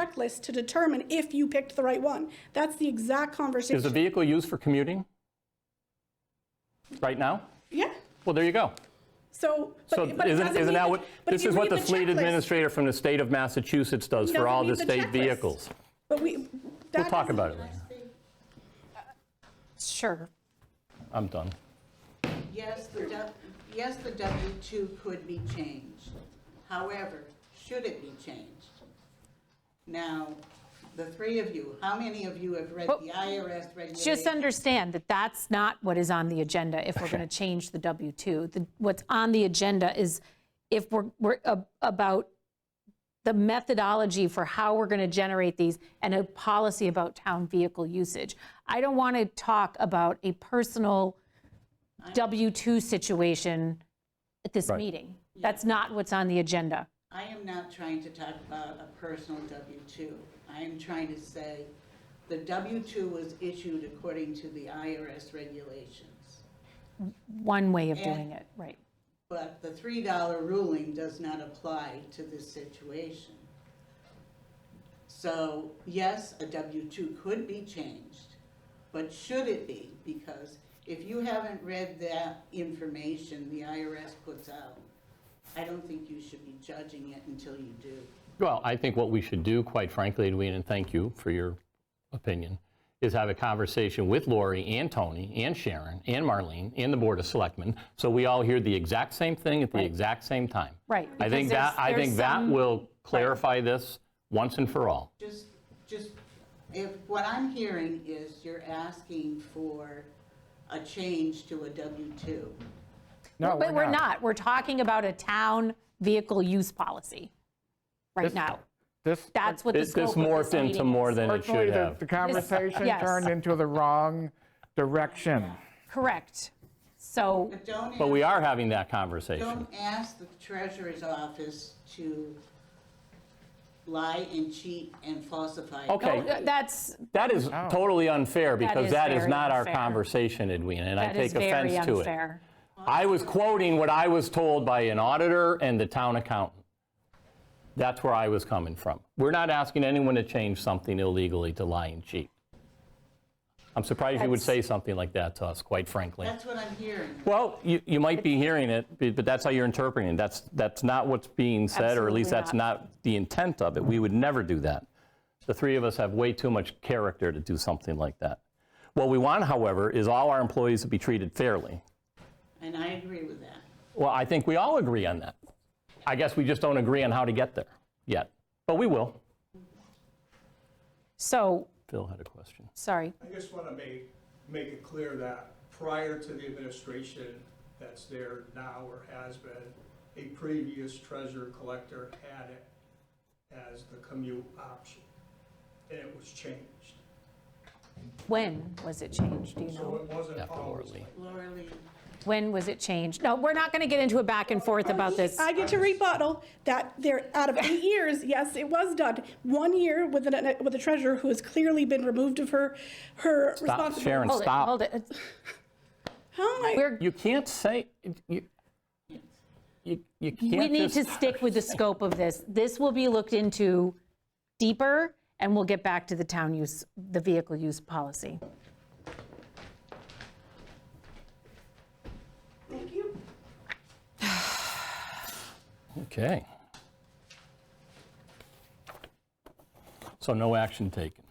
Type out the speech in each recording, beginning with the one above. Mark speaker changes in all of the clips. Speaker 1: checklist to determine if you picked the right one. That's the exact
Speaker 2: Is the
Speaker 1: conversation.
Speaker 2: vehicle used for commuting? Right now?
Speaker 1: Yeah,
Speaker 2: Well, there you go.
Speaker 1: so. but-
Speaker 2: So
Speaker 1: but it
Speaker 2: isn't,
Speaker 1: doesn't
Speaker 2: isn't
Speaker 1: mean
Speaker 2: that what,
Speaker 1: but if
Speaker 2: this
Speaker 1: you
Speaker 2: is what
Speaker 1: read
Speaker 2: the fleet
Speaker 1: checklist-
Speaker 2: administrator from the state of Massachusetts does
Speaker 1: Doesn't
Speaker 2: for all
Speaker 1: mean
Speaker 2: the
Speaker 1: the
Speaker 2: state
Speaker 1: checklist.
Speaker 2: vehicles.
Speaker 1: But we.
Speaker 2: We'll talk about it later.
Speaker 3: Sure.
Speaker 2: I'm done.
Speaker 4: Yes, the, du- yes, the W-2 could be changed. However, should it be changed? Now, the three of you, how many of you have read
Speaker 3: Well,
Speaker 4: the IRS regulations?
Speaker 3: Just understand that that's not what is on the agenda if we're going to change the W-2. The- What's on the agenda is if we're, we're ab- about the methodology for how we're going to generate these and a policy about town vehicle usage. I don't want to talk about a personal W-2 situation at this meeting. That's not what's on the agenda.
Speaker 4: I am not trying to talk about a personal W-2. I am trying to say the W-2 was issued according to the IRS regulations.
Speaker 3: One way of doing it, right.
Speaker 4: But the $3 ruling does not apply to this situation. So, yes, a W-2 could be changed, but should it be? Because if you haven't read that information the IRS puts out, I don't think you should be judging it until you do.
Speaker 2: Well, I think what we should do, quite frankly, Edwina, and thank you for your opinion, is have a conversation with Lori and Tony and Sharon and Marlene and the Board of Selectmen, so we all hear the exact same thing at the exact same time.
Speaker 3: Right,
Speaker 2: I
Speaker 3: because
Speaker 2: think that,
Speaker 3: there's-
Speaker 2: I think
Speaker 3: there's
Speaker 2: that
Speaker 3: some-
Speaker 2: will clarify this once and for all.
Speaker 4: Just, just, if, what I'm hearing is you're asking for a change to a W-2.
Speaker 2: Oh,
Speaker 5: No,
Speaker 3: But we're not. We're talking about a town vehicle use policy right
Speaker 5: This-
Speaker 3: now.
Speaker 5: This,
Speaker 3: That's what the
Speaker 2: This this
Speaker 3: scope of this
Speaker 2: morphed into
Speaker 3: meeting
Speaker 2: more
Speaker 3: is.
Speaker 2: than it
Speaker 5: unfortunately,
Speaker 2: should
Speaker 5: the,
Speaker 2: have.
Speaker 5: the conversation
Speaker 3: yes.
Speaker 5: turned into the wrong direction.
Speaker 3: Correct. So,
Speaker 4: But don't
Speaker 2: But
Speaker 4: ask-
Speaker 2: we are having that conversation.
Speaker 4: Don't ask the treasurer's office to lie and cheat and falsify.
Speaker 2: Okay.
Speaker 3: uh, that's,
Speaker 2: That is totally unfair because
Speaker 3: is
Speaker 2: that is
Speaker 3: very
Speaker 2: not our
Speaker 3: unfair.
Speaker 2: conversation, Edwina, and I
Speaker 3: that is
Speaker 2: take
Speaker 3: very
Speaker 2: offense to it.
Speaker 3: unfair.
Speaker 2: I was quoting what I was told by an auditor and the town accountant. That's where I was coming from. We're not asking anyone to change something illegally to lie and cheat. I'm surprised you would say something like that to us, quite frankly.
Speaker 4: That's what I'm hearing.
Speaker 2: Well, you, you might be hearing it, but but that's how you're interpreting it. That's, that's not what's being said, or at least that's
Speaker 3: Absolutely
Speaker 2: not the intent of it. We would never do that. The three of us have way too much character to do something like that. What we want, however, is all our employees to be treated fairly.
Speaker 4: And I agree with that.
Speaker 2: Well, I think we all agree on that. I guess we just don't agree on how to get there yet, but we will.
Speaker 3: So,
Speaker 2: Phil had a question.
Speaker 3: sorry.
Speaker 6: I just want to make, make it clear that prior to the administration that's there now or has been, a previous treasurer collector had it as the commute option, and it was changed.
Speaker 3: When was it changed? Do you
Speaker 6: So
Speaker 3: know?
Speaker 6: it wasn't
Speaker 2: After Laura
Speaker 6: always
Speaker 2: Lee.
Speaker 6: like
Speaker 4: Laura Lee.
Speaker 3: When was it changed? No, we're not going to get into a back and forth about this. um,
Speaker 1: I get to rebuttal that there, out of eight years, yes, it was done. One year with a, with a treasurer who has clearly been removed of her, her
Speaker 2: Stop,
Speaker 1: responsibility.
Speaker 2: Sharon,
Speaker 3: Hold it, Hold
Speaker 2: stop.
Speaker 3: it.
Speaker 1: How am I-
Speaker 3: We're,
Speaker 2: You can't say, you, you you can't
Speaker 3: we need
Speaker 2: just-
Speaker 3: to stick with the scope of this. This will be looked into deeper, and we'll get back to the town use, the vehicle use policy.
Speaker 1: Thank you.
Speaker 2: Okay. So no action taken.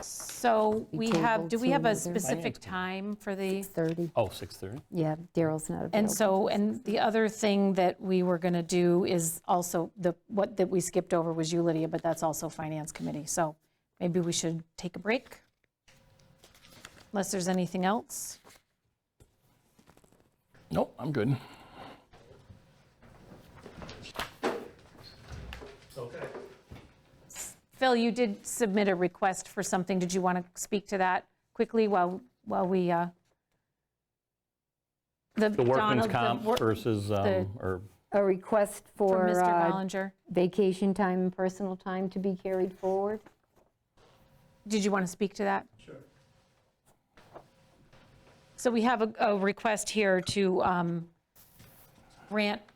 Speaker 3: So we have,
Speaker 7: tabled
Speaker 3: do we
Speaker 7: to
Speaker 3: have a
Speaker 7: another-
Speaker 3: specific time for the?
Speaker 7: 30.
Speaker 2: Oh, 6:30?
Speaker 7: Yeah, Daryl's not available.
Speaker 3: And so, and the other thing that we were going to do is also, the, what, that we skipped over was you, Lydia, but that's also Finance Committee. So maybe we should take a break? Unless there's anything else?
Speaker 2: Nope, I'm good.
Speaker 3: Phil, you did submit a request for something. Did you want to speak to that quickly while, while we, uh?
Speaker 2: The workman's
Speaker 3: Donald, the
Speaker 2: comp
Speaker 3: wor-
Speaker 2: versus,
Speaker 3: the-
Speaker 2: um, or,
Speaker 7: A request
Speaker 3: For
Speaker 7: for
Speaker 3: Mr.
Speaker 7: uh,
Speaker 3: Gollinger.
Speaker 7: vacation time and personal time to be carried forward.
Speaker 3: Did you want to speak to that?
Speaker 6: Sure.
Speaker 3: So we have a, a request here to um, grant